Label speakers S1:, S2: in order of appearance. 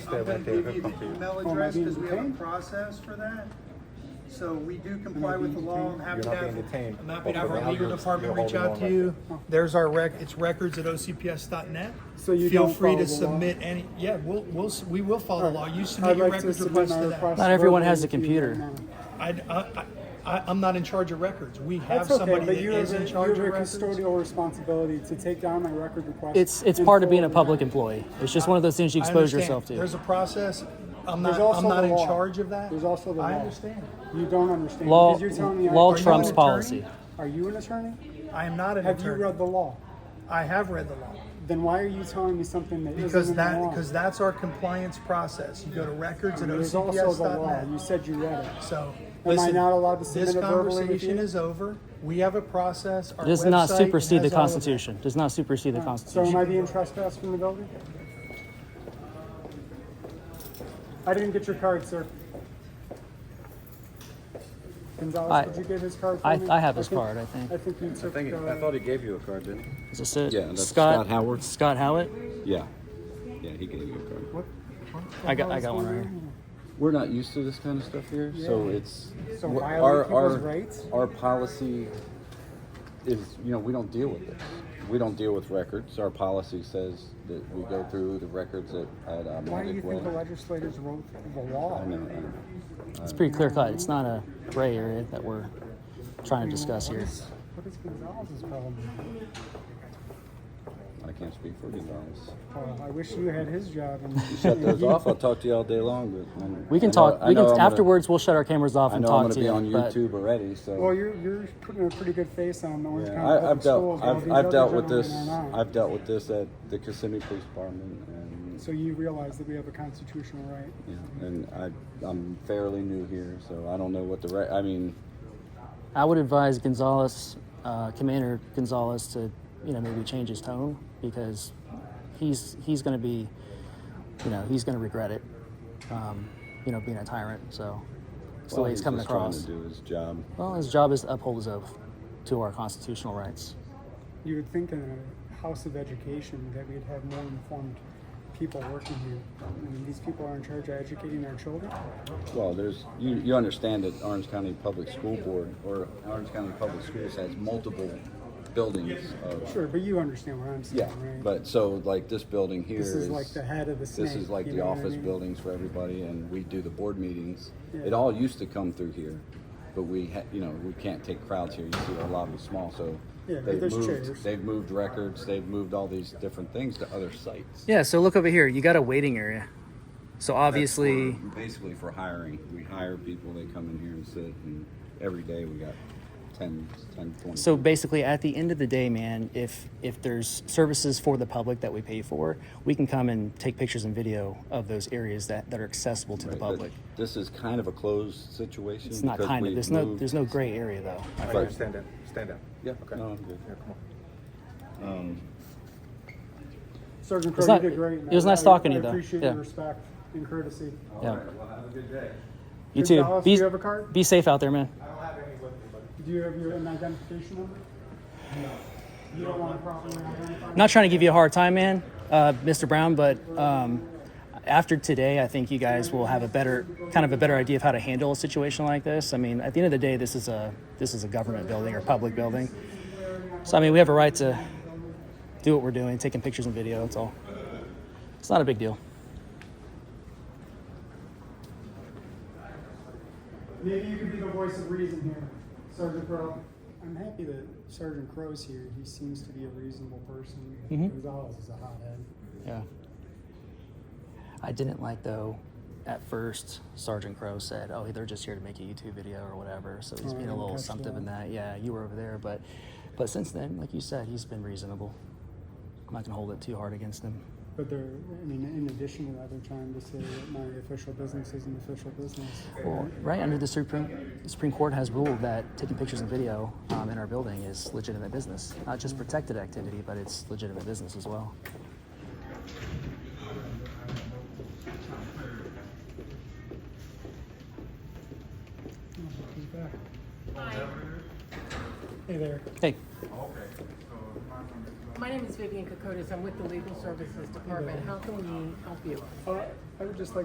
S1: there
S2: I'm
S1: when
S2: gonna
S1: they
S2: give
S1: were
S2: you the
S1: completed.
S2: email
S3: Oh, am I
S2: address
S3: being
S2: because we have a
S3: detained?
S2: process for that. So we do comp
S3: Am
S2: comply
S3: I
S2: with the
S3: being
S2: law. I'm
S3: detained?
S2: happy
S1: You're
S2: to
S1: not
S2: have,
S1: being detained.
S2: I'm happy to have
S1: But
S2: our
S1: now
S2: legal
S1: you're-
S2: department
S1: you're
S2: reach out
S1: holding
S2: to
S1: on
S2: you.
S1: like
S2: There's our rec, it's records at ocps.net.
S3: So you
S2: Feel
S3: don't
S2: free to
S3: follow the law?
S2: submit any, yeah, we'll, we'll, s- we will follow the law. You
S3: I'd
S2: submit your
S3: like to
S2: records
S3: submit
S2: request
S3: my
S2: to
S3: request
S2: that.
S4: Not everyone has a
S3: verbally to you right
S4: computer.
S3: now.
S2: I, I, I, I'm not in charge of records. We have
S3: That's okay,
S2: somebody
S3: but
S2: that
S3: you have,
S2: is
S3: a-
S2: in
S3: you
S2: charge
S3: have
S2: of
S3: a
S2: records.
S3: custodial responsibility to take down my record request.
S4: It's it's
S3: and
S4: part of being a
S3: forward it.
S4: public employee. It's just one of those things you
S2: I
S4: expose
S2: understand.
S4: yourself to.
S2: There's a process. I'm
S3: There's
S2: not,
S3: also
S2: I'm not
S3: the
S2: in
S3: law.
S2: charge of that.
S3: There's also the
S2: I
S3: law.
S2: understand.
S3: You don't understand.
S4: Law-
S3: because you're telling me I
S4: law
S3: can't-
S2: you
S4: trumps
S2: an attorney?
S4: policy.
S3: Are you an attorney?
S2: I am not an
S3: Have you
S2: attorney.
S3: read the law?
S2: I have read the law.
S3: Then why are you telling me something that not
S2: Because
S3: in the
S2: that,
S3: law?
S2: because that's our compliance process. You go to records at
S3: There's also the law. You
S2: ocps.net.
S3: said you read it.
S2: So,
S3: Am I
S2: listen,
S3: not allowed to
S2: this
S3: submit it verbally with
S2: conversation
S3: you?
S2: is over. We have a process. Our
S4: Does not
S2: website
S4: supersede the
S2: has all of that.
S4: Constitution. Does not supersede the
S3: So am
S4: Constitution.
S3: I being trespassed from the building? I didn't get your card, sir.
S4: I-
S3: Gonzalez, could you give his card for
S4: I-
S3: me?
S4: I have his
S3: think-
S4: card, I think.
S3: I think you
S5: I
S3: took,
S5: think, I
S3: uh,
S5: thought he gave you a card, didn't he?
S4: Is this it?
S5: Yeah, that's Scott Howard.
S4: Scott Howard.
S5: Yeah. Yeah, he gave you a card.
S4: I got I got one right here.
S5: We're not used to this kind of stuff here, so it's
S3: So
S5: we're-
S3: violate people's rights?
S5: our policy is you know we don't deal with this. We don't deal with records. Our policy says that we go through the records at at uh,
S3: why do you
S5: Magic
S3: think the
S5: Way.
S3: legislators wrote the
S5: I
S3: law?
S5: know, I know.
S4: It's pretty clear cut. It's not a gray area that we're trying to discuss
S3: What
S4: here.
S3: is- What is Gonzalez's problem?
S5: I can't speak for Gonzalez.
S3: Uh, I wish you had his job and.
S5: Shut those off. I'll talk to you all day long. But I'm-
S4: We
S5: I
S4: can
S5: know-
S4: talk.
S5: I
S4: We
S5: know I'm
S4: can
S5: gonna-
S4: afterwards. We'll shut our cameras off
S5: I
S4: and
S5: know I'm
S4: talk
S5: going to
S4: to
S5: be
S4: you.
S5: on
S4: but-
S5: YouTube already, so
S3: Well, you're, you're putting a pretty good face on the Orange
S5: Yeah,
S3: County
S5: I,
S3: Public
S5: I've
S3: Schools.
S5: dealt.
S3: while
S5: I've,
S3: these
S5: I've
S3: other
S5: dealt with
S3: gentlemen
S5: this.
S3: are not.
S5: I've dealt with this at the Kissimmee Police Department, and
S3: So you realize that we have a constitutional right?
S5: yeah, and I, I'm fairly new here, so I don't know what the right. I mean,
S4: I would advise Gonzalez, uh, Commander Gonzalez, to you know maybe change his tone because he's he's going to be, you know, he's going to regret it, um, you know, being a tyrant. So it's the
S5: all
S4: way he's coming
S5: just
S4: across.
S5: Trying to do his job.
S4: Well, his job is to uphold his oath to our constitutional rights.
S3: You would think in a house of education that we'd have more informed people working here. I mean, these people are in charge of educating our children.
S5: Well, there's. You, you understand that Orange County Public School Board or Orange County Public Schools has multiple buildings. Of,
S3: Sure, but you understand what I'm saying,
S5: Yeah,
S3: right?
S5: but so like this building here
S3: This
S5: is
S3: is like the head of the
S5: This
S3: snake,
S5: is like
S3: you
S5: the
S3: know what I
S5: office
S3: mean?
S5: buildings for everybody, and we do the board meetings. It
S3: Yeah.
S5: all used to come through here, but we, ha- you know, we can't take crowds here. You see, our lobby's small, so
S3: Yeah, but
S5: they've
S3: there's
S5: moved.
S3: chairs.
S5: They've moved records. They've moved all these different things to other sites.
S4: Yeah. So look over here. You got a waiting area. So
S5: That's
S4: obviously,
S5: for- basically for hiring, we hire people. They come in here and sit, and every day we got 10, 10, 20.
S4: So basically, at the end of the day, man, if if there's services for the public that we pay for, we can come and take pictures and video of those areas that, that are accessible to the
S5: Right, but
S4: public.
S5: This is kind of a closed situation.
S4: It's not
S5: because
S4: kind of.
S5: we've
S4: There's no
S5: moved-
S4: there's no gray area though.
S1: All right,
S5: Right.
S1: guys, stand up, stand up.
S5: Yeah,
S1: Okay.
S5: no, I'm good.
S1: Yeah, come on.
S3: Sergeant
S4: It's
S3: Crowe, you
S4: not-
S3: did great. and
S4: it was
S3: I-
S4: nice
S3: I-
S4: talking to you,
S3: I
S4: though.
S3: appreciate
S4: Yeah.
S3: your respect and courtesy.
S4: Yeah.
S5: Well, have a good day.
S4: You too.
S3: Gonzalez,
S4: Be,
S3: do you have a card?
S4: be safe out there, man.
S3: Do you have your an identification number? No. You don't want to properly identify?
S4: I'm not trying to give you a hard time, man, uh, Mr. Brown, but um, after today, I think you guys will have a better kind of a better idea of how to handle a situation like this. I mean, at the end of the day, this is a this is a government building or public building. So I mean, we have a right to do what we're doing, taking pictures and video. That's all. It's not a big deal.
S3: Maybe you could be the voice of reason here, Sergeant Crow. I'm happy that Sergeant Crow's here. He seems to be a reasonable person.
S4: Mm-hmm.
S3: Gonzalez is a hothead.
S4: Yeah. I didn't like though. At first, Sergeant Crow said, "Oh, they're just here to make a YouTube video or whatever." So he's
S3: Oh, I
S4: being a
S3: didn't
S4: little
S3: catch
S4: assumptive
S3: that.
S4: in that. Yeah, you were over there, but but since then, like you said, he's been reasonable. I'm not gonna hold it too hard against him.
S3: But they're, I mean, in addition to that, they're trying to say that my official business is an official business.
S4: Right under the Supreme the Supreme Court has ruled that taking pictures and video um, in our building is legitimate business, not just
S3: Hmm.
S4: protected activity, but it's legitimate business as well.
S3: Hey there.
S4: Hey,
S6: Okay, so my
S1: My name is Vivian Kokotis. I'm with the Legal Services Department. How can we help you?
S3: Uh, I would just like